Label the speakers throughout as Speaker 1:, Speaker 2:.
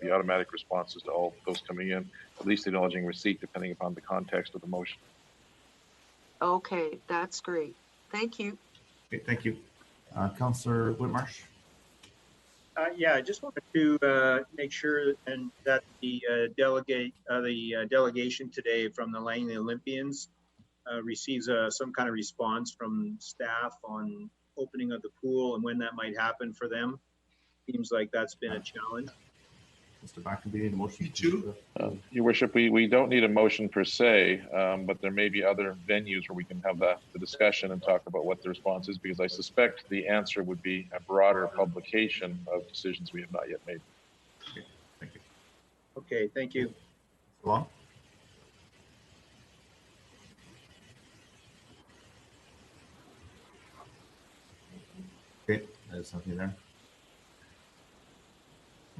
Speaker 1: the automatic responses to all those coming in, at least acknowledging receipt depending upon the context of the motion.
Speaker 2: Okay, that's great. Thank you.
Speaker 3: Okay, thank you. Uh, Counselor Whitmarsh?
Speaker 4: Uh, yeah, I just wanted to, uh, make sure and that the uh, delegate, uh, the uh, delegation today from the Langley Olympians uh, receives, uh, some kind of response from staff on opening of the pool and when that might happen for them. Seems like that's been a challenge.
Speaker 3: Mr. Blackenby, any motion?
Speaker 5: Me too.
Speaker 1: Um, Your worship, we, we don't need a motion per se, um, but there may be other venues where we can have the, the discussion and talk about what the response is, because I suspect the answer would be a broader publication of decisions we have not yet made.
Speaker 3: Thank you.
Speaker 4: Okay, thank you.
Speaker 3: Long? Okay, there's something there.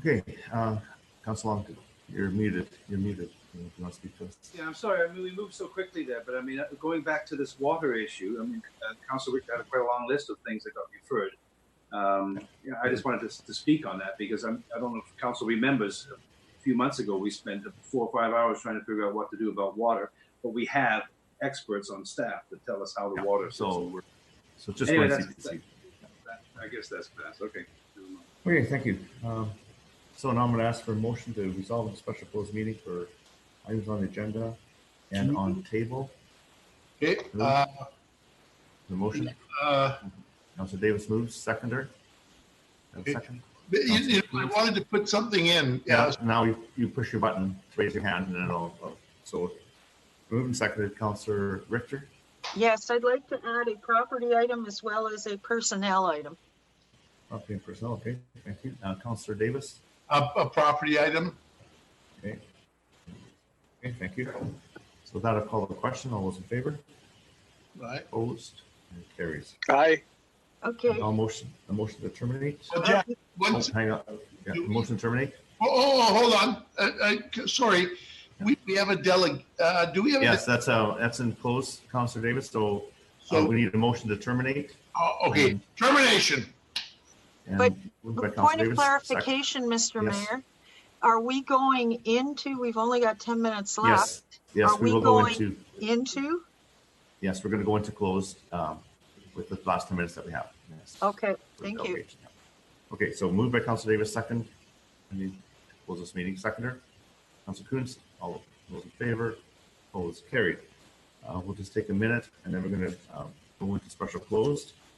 Speaker 3: Okay, uh, Counselor Long, you're muted, you're muted. You want to speak to us?
Speaker 5: Yeah, I'm sorry. I mean, we moved so quickly there, but I mean, uh, going back to this water issue, I mean, uh, Council Rick had quite a long list of things that got referred. Um, you know, I just wanted to, s- to speak on that because I'm, I don't know if Council remembers. A few months ago, we spent four or five hours trying to figure out what to do about water, but we have experts on staff that tell us how the
Speaker 3: Yeah,
Speaker 5: water
Speaker 3: so-
Speaker 5: system works.
Speaker 3: So just.
Speaker 5: Anyway,
Speaker 3: wanted to
Speaker 5: that's-
Speaker 3: see- see-
Speaker 5: That- I guess that's passed. Okay. Never mind.
Speaker 3: Okay, thank you. Um, So now I'm going to ask for a motion to resolve the special closed meeting for items on the agenda and on table.
Speaker 6: Okay, uh,
Speaker 3: The motion,
Speaker 6: uh,
Speaker 3: Councilor Davis moves, seconder. And
Speaker 6: Okay.
Speaker 3: second.
Speaker 6: you- you know, I wanted to put something in,
Speaker 3: Yeah,
Speaker 6: yeah,
Speaker 3: now you, you push your button, raise your hand, and then I'll, I'll- so moved and seconded, Councilor Richter.
Speaker 2: Yes, I'd like to add a property item as well as a personnel item.
Speaker 3: Up in personnel, okay, thank you. Uh, Councilor Davis,
Speaker 6: a, a property item.
Speaker 3: okay. Okay, thank you. So that'll call the question. All those in favor?
Speaker 6: Right.
Speaker 3: Opposed? And carries.
Speaker 7: Aye.
Speaker 2: Okay,
Speaker 3: All motion, the motion to terminate?
Speaker 6: Well, Jack,
Speaker 3: Oh,
Speaker 6: once-
Speaker 3: Hang on, yeah,
Speaker 6: Do we-
Speaker 3: motion to terminate?
Speaker 6: oh, oh, hold on, uh, uh, c- sorry, we, we have a deleg, uh, do we have? a-
Speaker 3: Yes, that's, uh, that's in close, Counselor Davis, so uh,
Speaker 6: So,
Speaker 3: we need a motion to terminate.
Speaker 6: oh, okay, termination,
Speaker 3: and
Speaker 2: But
Speaker 3: moved by
Speaker 2: But
Speaker 3: Counselor
Speaker 2: point of
Speaker 3: Davis, sec-
Speaker 2: clarification, Mr.
Speaker 3: Yes.
Speaker 2: Mayor. Are we going into, we've only got 10 minutes left,
Speaker 3: Yes, yes,
Speaker 2: Are
Speaker 3: we
Speaker 2: we
Speaker 3: will go
Speaker 2: going-
Speaker 3: into,
Speaker 2: into?
Speaker 3: yes, we're going to go into closed um, with the last 10 minutes that we have. Yes.
Speaker 2: Okay,
Speaker 3: For
Speaker 2: thank you.
Speaker 3: deliberation, yeah. Okay, so moved by Counselor Davis, second. I mean, close this meeting, seconder. Counselor Coons, all those in favor, opposed, carried. Uh, We'll just take a minute and then we're going to go um, into special closed.